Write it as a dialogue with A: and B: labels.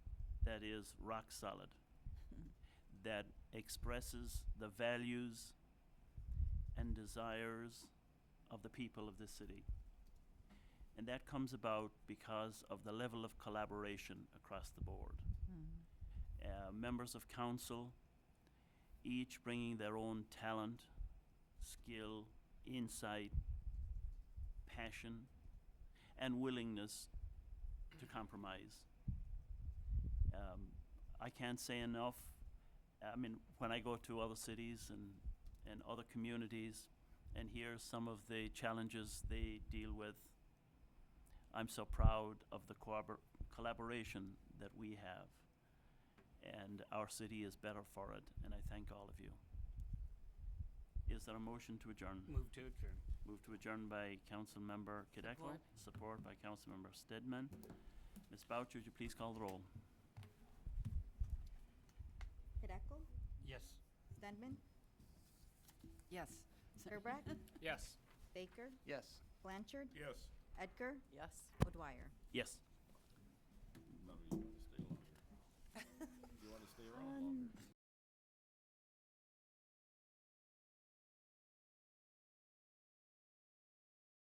A: that is rock solid, that expresses the values and desires of the people of this city. And that comes about because of the level of collaboration across the board.
B: Mhm.
A: Uh, members of council, each bringing their own talent, skill, insight, passion, and willingness to compromise. Um, I can't say enough. I mean, when I go to other cities and, and other communities and hear some of the challenges they deal with, I'm so proud of the corrobor- collaboration that we have. And our city is better for it, and I thank all of you. Is there a motion to adjourn?
C: Move to adjourn.
A: Moved to adjourn by Councilmember Cadeckel.
B: Support.
A: Support by Councilmember Stedman. Ms. Boucher, would you please call the roll?
D: Hideko,
C: Yes.
D: Stedman,
B: Yes.
D: Gerbrack,
C: Yes.
D: Baker,
C: Yes.
D: Blanchard,
E: Yes.
D: Edgar,
B: Yes.
D: O'Dwyer.
A: Yes.
E: No, you want to stay longer. You want to stay around longer.